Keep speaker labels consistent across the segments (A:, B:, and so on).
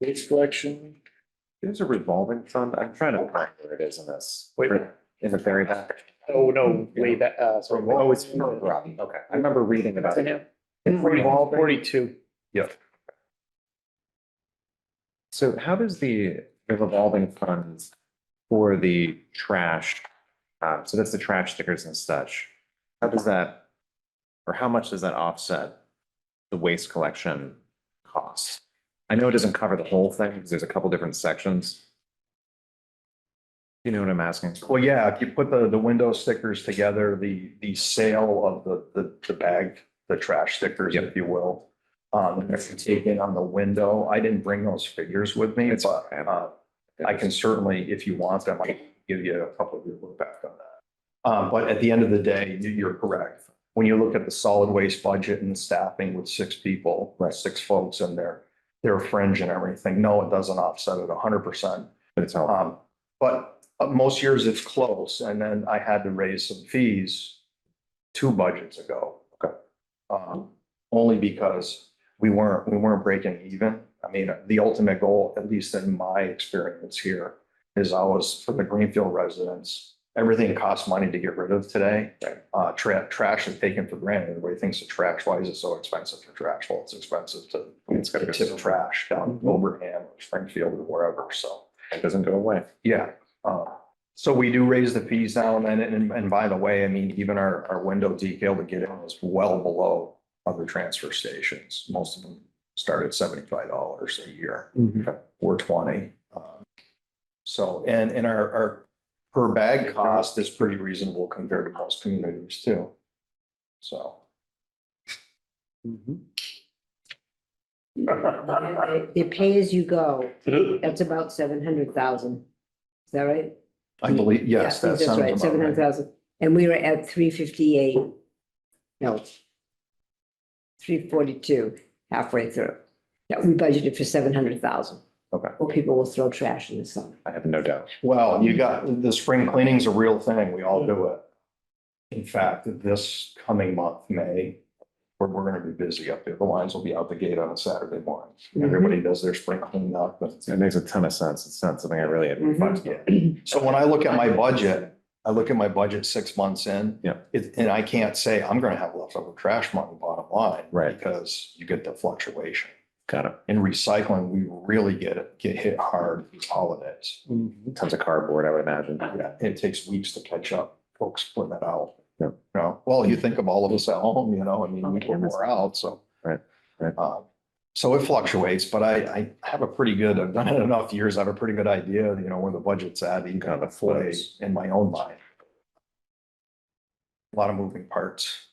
A: Waste collection.
B: There's a revolving fund. I'm trying to find where it is in this.
A: Wait.
B: In the very back.
A: Oh, no, way back, uh, sorry.
B: Oh, it's for Robbie. Okay. I remember reading about it. It's revolving.
A: Forty-two.
B: So how does the the revolving funds for the trash, um, so that's the trash stickers and such. How does that, or how much does that offset the waste collection cost? I know it doesn't cover the whole thing because there's a couple different sections. You know what I'm asking?
C: Well, yeah, if you put the, the window stickers together, the, the sale of the, the, the bag, the trash stickers, if you will. Um, if you take in on the window, I didn't bring those figures with me,
B: It's-
C: but, uh, I can certainly, if you want them, I can give you a couple of your look back on that. Um, but at the end of the day, you- you're correct. When you look at the solid waste budget and staffing with six people,
B: Right.
C: six folks in there, their fringe and everything, no, it doesn't offset it hundred percent.
B: But it's all,
C: Um, but uh, most years it's close and then I had to raise some fees two budgets ago.
B: Okay.
C: Um, only because we weren't, we weren't breaking even. I mean, the ultimate goal, at least in my experience here, is always for the Greenfield residents. Everything costs money to get rid of today.
B: Right.
C: Uh, tra- trash is taken for granted. Everybody thinks that trash, why is it so expensive for trash? Well, it's expensive to
B: It's gotta Mm-hmm.
C: to
B: go
C: tip
B: somewhere.
C: trash down in Wilbraham or Springfield or wherever, so.
B: it doesn't go away.
C: Yeah, uh, so we do raise the fees now and then, and, and by the way, I mean, even our, our window decal to get in is well below other transfer stations. Most of them start at seventy-five dollars a year or twenty. Um, So, and, and our, our per bag cost is pretty reasonable compared to most communities too. So.
D: The the pay as you go, that's about seven hundred thousand. Is that right?
C: I believe, yes,
D: Yeah, I
C: that
D: think that's
C: sounds
D: right. Seven
C: about
D: hundred
C: right.
D: thousand, and we were at three fifty-eight. No. Three forty-two, halfway through. Yeah, we budgeted for seven hundred thousand.
B: Okay.
D: Well, people will throw trash in the summer.
B: I have no doubt.
C: Well, you got, the spring cleaning's a real thing. We all do it. In fact, this coming month, May, we're, we're gonna be busy up there. The lines will be out the gate on a Saturday morning.
B: Mm-hmm.
C: Everybody does their spring cleanup. but-
B: It makes a ton of sense. It's not something I really had.
C: Mm-hmm.
D: Mhm.
B: thought about.
C: So when I look at my budget, I look at my budget six months in.
B: Yeah.
C: It, and I can't say I'm gonna have leftover trash money bottom line.
B: Right.
C: Because you get the fluctuation.
B: Got it.
C: In recycling, we really get, get hit hard these holidays.
B: Tons of cardboard, I would imagine.
C: Yeah, it takes weeks to catch up, folks putting it out.
B: Yeah.
C: You know, well, you think of all of us at home, you know, I mean, we
D: Okay,
C: were
D: that's-
C: more out, so.
B: Right, right.
C: Um, So it fluctuates, but I, I have a pretty good, I've done it enough years, I have a pretty good idea, you know, where the budget's at, even kind of play in my own mind. A Lot of moving parts.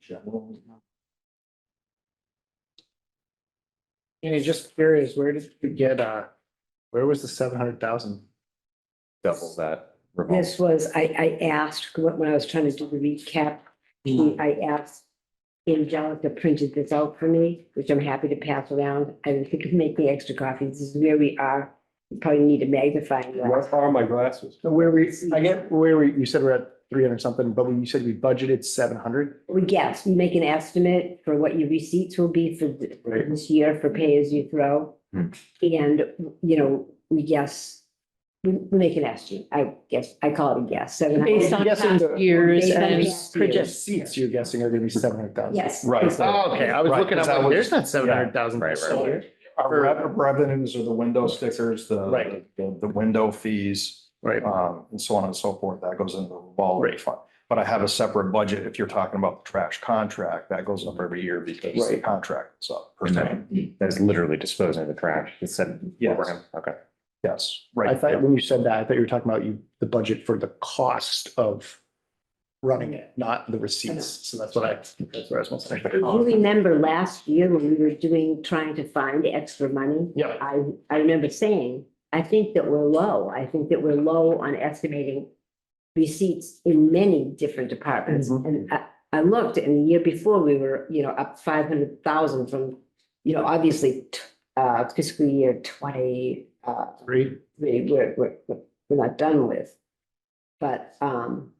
C: General.
A: And it's just curious, where did you get, uh, where was the seven hundred thousand?
B: Double that. revolving.
D: This was, I, I asked, when when I was trying to do the recap, she- I asked Angelica printed this out for me, which I'm happy to pass around. I didn't think of making extra coffee. This is where we are. You Probably need a magnifying glass.
E: What are my glasses?
A: Where we, I get, where we, you said we're at three hundred something, but we you said we budgeted seven hundred?
D: We guess, we make an estimate for what your receipts will be for th-
E: Right.
D: this year for pay as you throw.
B: Hmm.
D: And, you know, we guess, we, we make an estimate. I guess, I call it a guess, seven
F: Based
D: hundred.
F: on
A: Yes, and
F: past
A: the-
F: years
D: Based on
F: and
D: past
F: projections.
A: Seats, you're guessing are gonna be seven hundred thousand?
D: Yes.
C: Right.
D: Based on-
A: Oh, okay, I
C: Oh, was Right, looking up, 'cause that like, was- there's
A: not
C: yeah.
A: thousand.
B: Right, right, right.
C: Our rev- revenues are the window stickers, the,
A: Right.
C: the, the window fees,
A: Right.
C: um, and so on and so forth. That goes into the revolving
A: Right.
C: fund. But I have a separate budget. If you're talking about the trash contract, that goes up every year because the
A: Right.
C: contract is up. per
B: And
C: se.
B: that- that is literally disposing of the trash. It said.
C: Yes.
B: Wilbraham. Okay.
C: Yes,
A: I
C: right.
A: thought when you said that, I thought you were talking about you, the budget for the cost of running it, not the receipts. So that's what I, that's where I was supposed
D: Do You
A: to.
D: remember last year when we were doing, trying to find extra money?
A: Yeah,
D: I, I remember saying, I think that we're low. I think that we're low on estimating receipts in many different departments.
A: Mhm.
D: And I, I looked and the year before we were, you know, up five hundred thousand from, you know, obviously t- uh, fiscal year twenty, uh,
A: three.
D: we, we're, we're, we're not done with. But, um,